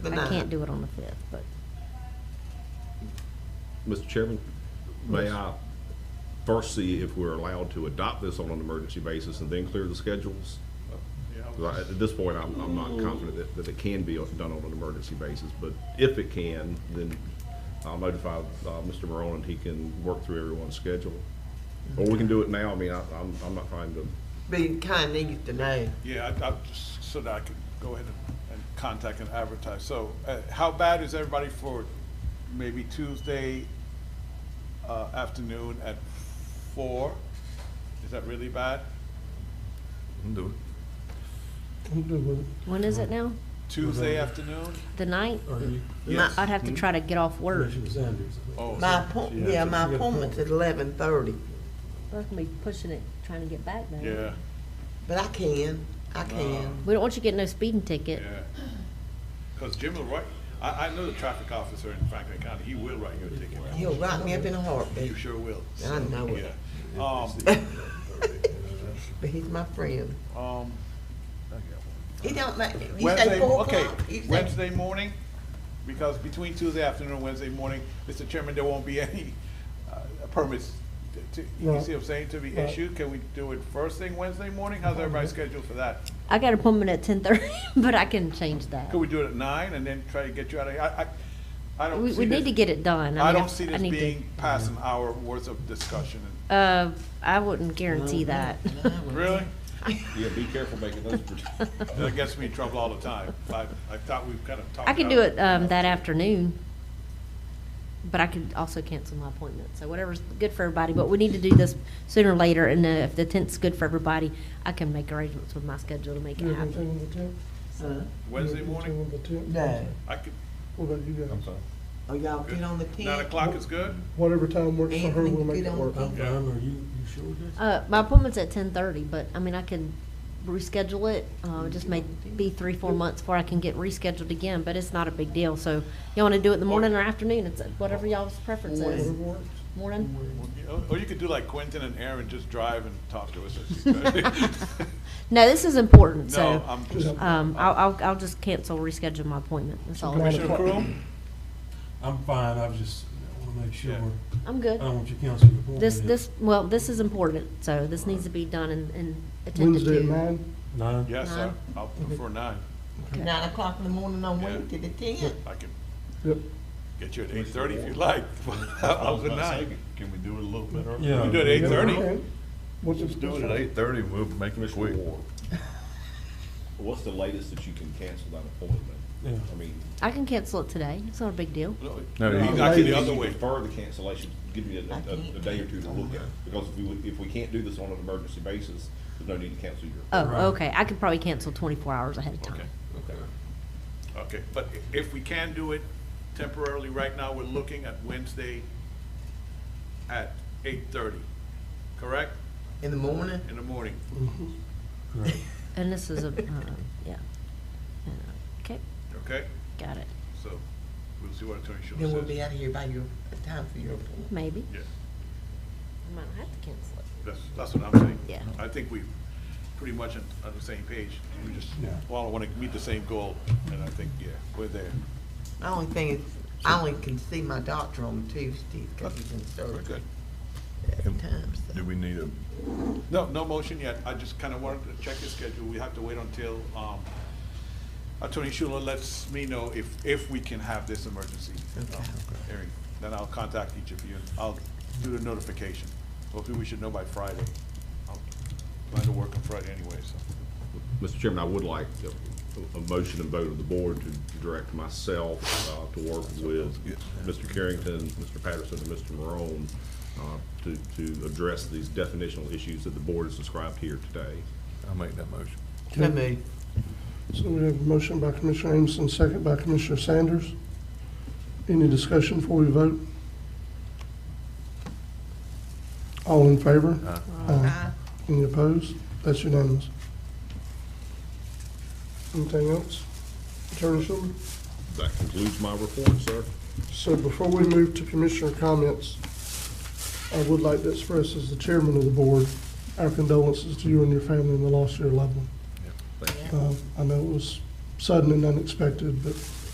The I nine. can't do it on the fifth, but Mr. Chairman, may I first see if we're allowed to adopt this on an emergency basis and then clear the schedules? 'Cause I- At this point, I'm, I'm not confident that, that it can be done on an emergency basis, but if it can, then I'll notify, uh, Mr. Morone and he can work through everyone's schedule. Or we can do it now, I mean, I, I'm, I'm not trying to, Be kind needs to know. Yeah, I, I just, so that I could go ahead and, and contact and advertise. So, uh, how bad is everybody for maybe Tuesday, uh, afternoon at four? Is that really bad? when is it now? Tuesday afternoon? The ninth? Are you, Yes. I'd have to try to get off work. Commissioner Sanders? Oh, My so- appoint, yeah, yeah, so- my appointment's at eleven thirty, We're gonna be pushing it, trying to get back now. Yeah, but I can, I can. We don't want you getting no speeding ticket. yeah. Cause Jim will write, I, I know the traffic officer in Franklin County, he will write you a ticket. He'll rock me up in a You heartbeat, sure will. I know So, it. Yeah. Um, but he's my friend. um, He don't make, you say Wednesday, four okay, o'clock? You say- Wednesday morning, because between Tuesday afternoon and Wednesday morning, Mr. Chairman, there won't be any uh, permits, to- you Right. see what I'm saying, to be Right. issued. Can we do it first thing Wednesday morning? How's everybody scheduled for that? I got an appointment at ten thirty, but I can change that. Could we do it at nine and then try to get you out of here? I, I, I don't We, see we this- need to get it done. I mean, don't see I this need to- being past an hour worth of discussion. Uh, I wouldn't guarantee that. Really? yeah, be careful making those. That gets me in trouble all the time. I, I thought we've kind of talked. I could out- do it, um, that afternoon, but I could also cancel my appointment, so whatever's good for everybody, but we need to do this sooner or later, and uh, if the tenth's good for everybody, I can make arrangements with my schedule to make it You're gonna happen. turn on the tip? Huh? Wednesday You're gonna morning? turn on the tip? No, I could, What about you guys? oh, y'all get on the ten. nine o'clock is good? Whatever time works for her, Anthony, we'll make get it on work. the- I'm fine. are you, you sure this? Uh, my appointment's at ten thirty, but, I mean, I can reschedule it, uh, it just may be three, four months before I can get rescheduled again, but it's not a big deal, so y'all wanna do it in the morning or afternoon, it's uh, whatever y'all's preference is. Whatever works. Morning? Or- Or you could do like Quentin and Aaron, just drive and talk to us. as you go. No, this is important, No, so, I'm, um, I'll, I'll, I'll just cancel, reschedule my appointment, that's all. Commissioner Crew? I'm fine, I was just, I wanna make sure, Yeah. I'm I good. don't want you canceling your appointment. This, this, well, this is important, so this needs to be done and, and attended Wednesday to. at nine? No, Yes, sir. Nine. I'll prefer nine. Nine o'clock in the morning on Yeah. Wednesday, the ten. I can Yep. get you at eight thirty if you like. I'll do nine. Can we do it a little bit earlier? yeah. We do it at eight thirty. Okay. What's Let's it? do it at eight thirty, we'll make it quick. Commissioner Ward, what's the latest that you can cancel that appointment? Yeah. I mean, I can cancel it today, it's not a big deal. No, I you- can the If other you way. Defer the cancellation, give me a, a, a day or two to look at it, because if we, if we can't do this on an emergency basis, there's no need to cancel your. Oh, okay, I could probably cancel twenty-four hours ahead of Okay, time. Okay. okay. But i- if we can do it temporarily, right now, we're looking at Wednesday at eight thirty, correct? In the morning? In the morning. Right. And this is a, uh, yeah. Uh, Okay, Okay, got it, so we'll see what Attorney Schuler Then says. we'll be out of here by your, time for your appointment. maybe. Yeah. I might not have to cancel it. That's, that's what I'm saying. Yeah. I think we pretty much on, on the same page. We just, Yeah. all want to meet the same goal, and I think, yeah, we're there. My only thing is, I only can see my doctor on Tuesdays, cause he's in We're surgery good. at times. Do we need a, No, no motion yet. I just kind of wanted to check the schedule. We have to wait until, um, Attorney Schuler lets me know if, if we can have this emergency um, Okay. hearing. Then I'll contact each of you. and I'll do the notification. Hopefully, we should know by Friday. I'll plan to work on Friday anyway, so. Mr. Chairman, I would like a, a motion and vote of the board to direct myself, uh, to work with Mr. Carrington, Mr. Patterson, and Mr. Morone, uh, to, to address these definitional issues that the board has described here today. I'll make that motion. So moved. So we have a motion by Commissioner Ameson, second by Commissioner Sanders. Any discussion before we vote? All in favor? Aye. Any opposed? That's unanimous. Anything else? Attorney Schuler? That concludes my report, sir. So before we move to commissioner comments, I would like to express as the chairman of the board, our condolences to you and your family in the loss of your loved one. Thank you. Uh, I know it was sudden and unexpected, but